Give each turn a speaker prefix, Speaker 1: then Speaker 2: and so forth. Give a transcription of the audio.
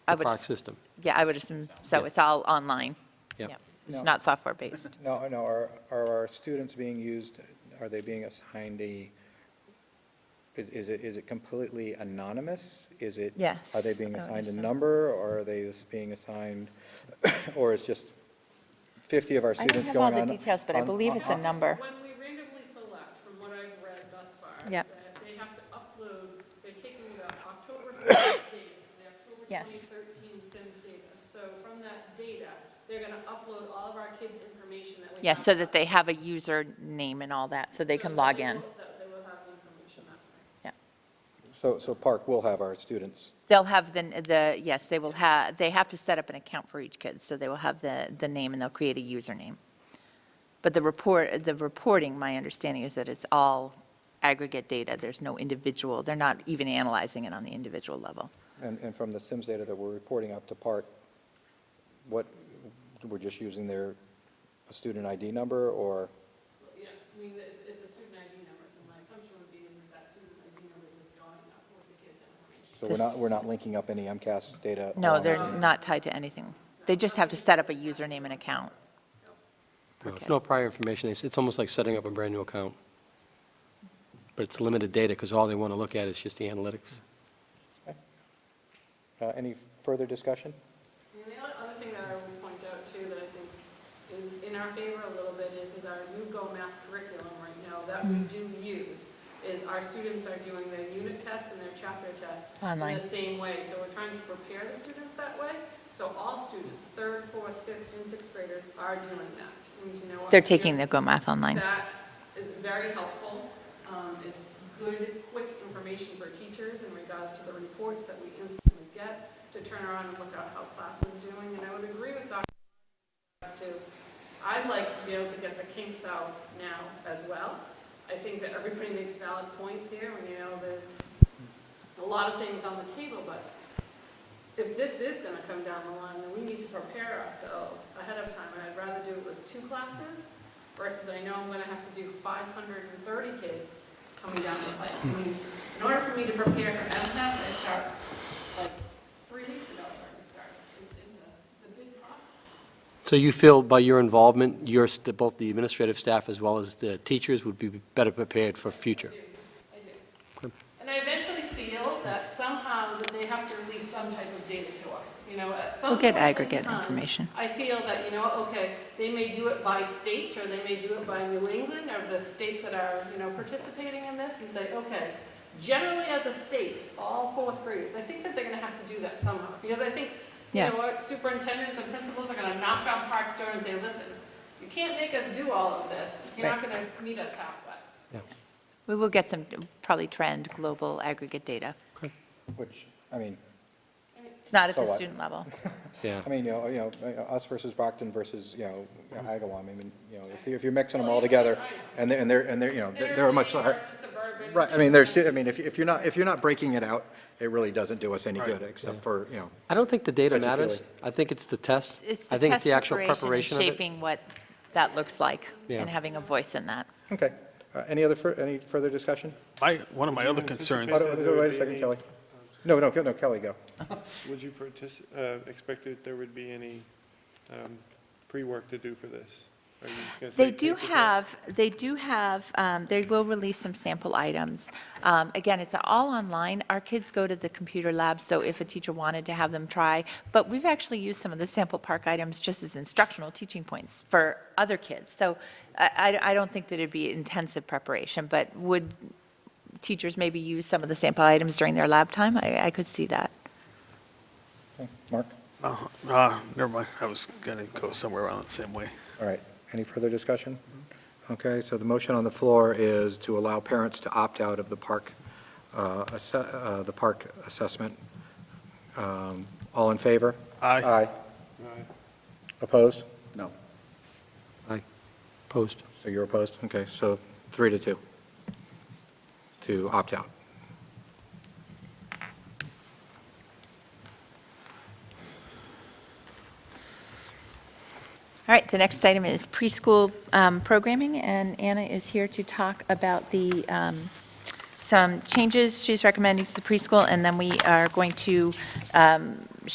Speaker 1: I
Speaker 2: the
Speaker 1: would
Speaker 2: park
Speaker 1: s-
Speaker 2: system.
Speaker 1: Yeah, I would assume, so
Speaker 2: Yeah.
Speaker 1: it's all online.
Speaker 2: Yep.
Speaker 1: Yeah. It's
Speaker 3: No.
Speaker 1: not software-based.
Speaker 3: No, no, are, are our students being used, are they being assigned a, is, is it, is it completely anonymous? Is it?
Speaker 1: Yes,
Speaker 3: Are they
Speaker 1: I
Speaker 3: being
Speaker 1: would
Speaker 3: assigned a
Speaker 1: assume.
Speaker 3: number, or are they just being assigned, or is just 50 of our
Speaker 1: I don't
Speaker 3: students
Speaker 1: have
Speaker 3: going on?
Speaker 1: all the details, but I
Speaker 3: on-
Speaker 1: believe
Speaker 3: on-
Speaker 1: it's a number.
Speaker 4: When we randomly select, from what I've read thus far,
Speaker 1: Yep.
Speaker 4: that they have to upload, they're taking the October 7th data, the October
Speaker 1: Yes.
Speaker 4: 2013 SIMS data. So from that data, they're going to upload all of our kids' information that we have.
Speaker 1: Yes, so that they have a username and all that, so they
Speaker 4: so
Speaker 1: can
Speaker 4: that
Speaker 1: log
Speaker 4: they
Speaker 1: in.
Speaker 4: will- That they will have the information that way.
Speaker 3: So, so Park will have our students,
Speaker 1: They'll have the, the, yes, they will have, they have to set up an account for each kid, so they will have the, the name and they'll create a username. But the report, the reporting, my understanding is that it's all aggregate data. There's no individual, they're not even analyzing it on the individual level.
Speaker 3: and, and from the Sims data that we're reporting up to Park, what, we're just using their student ID number, or?
Speaker 4: Well, Yeah, I mean, it's, it's a student ID number, so my assumption would be is that that student ID number is just going up with the kids' information.
Speaker 3: So we're not, we're not linking up any MCAS data?
Speaker 1: No,
Speaker 3: along
Speaker 1: they're
Speaker 3: with-
Speaker 1: not tied to anything. They just have to set up a username and account.
Speaker 2: No, It's
Speaker 1: Okay.
Speaker 2: no prior information. It's, it's almost like setting up a brand-new account. But it's limited data because all they want to look at is just the analytics.
Speaker 3: Uh, Any further discussion?
Speaker 4: I mean, The other- other thing that I would point out too, that I think is in our favor a little bit is, is our new Go Math curriculum right now that
Speaker 1: Mm.
Speaker 4: we do use, is our students are doing their unit tests and their chapter tests
Speaker 1: Online.
Speaker 4: in the same way. So we're trying to prepare the students that way. So all students, third, fourth, fifth, and sixth graders are doing that. And you know what?
Speaker 1: They're taking the Go Math Online.
Speaker 4: That is very helpful. Um, It's good, quick information for teachers in regards to the reports that we instantly get to turn around and look at how class is doing. And I would agree with Dr. as to, I'd like to be able to get the kinks out now as well. I think that everybody makes valid points here, and you know, there's a lot of things on the table, but if this is gonna come down the line, then we need to prepare ourselves ahead of time, and I'd rather do it with two classes versus I know I'm gonna have to do five hundred and thirty kids coming down the pipe. I mean, In order for me to prepare for MCAS, I start like three weeks ago, I already started. It- It's a, it's a big process.
Speaker 2: So you feel by your involvement, your, st- both the administrative staff as well as the teachers would be better prepared for future?
Speaker 4: I do. And I eventually feel that somehow that they have to release some type of data to us, you know, at some
Speaker 1: We'll get
Speaker 4: point in
Speaker 1: aggregate
Speaker 4: time,
Speaker 1: information.
Speaker 4: I feel that, you know, okay, they may do it by state, or they may do it by New England, or the states that are, you know, participating in this, and say, okay, generally as a state, all fourth graders, I think that they're gonna have to do that somehow, because I think, you
Speaker 1: Yeah.
Speaker 4: know, what superintendents and principals are gonna knock on Park's door and say, listen, you can't make us do all of this, you're not gonna meet us halfway.
Speaker 1: We will get some, probably trend, global aggregate data.
Speaker 3: Which, I mean,
Speaker 1: It's not at
Speaker 3: So
Speaker 1: the
Speaker 3: what?
Speaker 1: student level.
Speaker 2: Yeah.
Speaker 3: I mean, you know, you know, us versus Brockton versus, you know, Agawam, I mean, you know, if you- if you're mixing them all together, and they're, and they're, and they're, you know, they're they're much,
Speaker 4: Inner
Speaker 3: hard-
Speaker 4: city versus suburban.
Speaker 3: right, I mean, there's, I mean, if you- if you're not, if you're not breaking it out, it really doesn't do us any good, except for, you know,
Speaker 2: I don't think the data
Speaker 3: Touchy-feely.
Speaker 2: matters. I think it's the test.
Speaker 1: It's
Speaker 2: I
Speaker 1: the
Speaker 2: think it's
Speaker 1: test
Speaker 2: the actual preparation
Speaker 1: preparation
Speaker 2: of
Speaker 1: and
Speaker 2: it.
Speaker 1: shaping what that looks like
Speaker 2: Yeah.
Speaker 1: and having a voice in that.
Speaker 3: okay. Uh, Any other, fur- any further discussion?
Speaker 5: My, one of my other concerns,
Speaker 3: Oh, no, Wait a second, Kelly. No, no, no, Kelly, go.
Speaker 6: Would you partic- uh, expect that there would be any um, pre-work to do for this? Are you just gonna say
Speaker 1: They do
Speaker 6: take the test?
Speaker 1: have, they do have, um, they will release some sample items. Um, Again, it's all online. Our kids go to the computer lab, so if a teacher wanted to have them try, but we've actually used some of the sample park items just as instructional teaching points for other kids. So I, I- I don't think that it'd be intensive preparation, but would teachers maybe use some of the sample items during their lab time? I, I could see that.
Speaker 3: Okay, Mark,
Speaker 5: oh, ah, never mind, I was gonna go somewhere around the same way.
Speaker 3: all right. Any further discussion? Okay, so the motion on the floor is to allow parents to opt out of the park, uh, asse- uh, the park assessment. Um, All in favor?
Speaker 5: I,
Speaker 6: Aye.
Speaker 3: Opposed?
Speaker 2: Post.
Speaker 3: So you're opposed? Okay, so three to two to opt out.
Speaker 1: All right, the next item is preschool um, programming, and Anna is here to talk about the, um, some changes she's recommending to the preschool, and then we are going to um,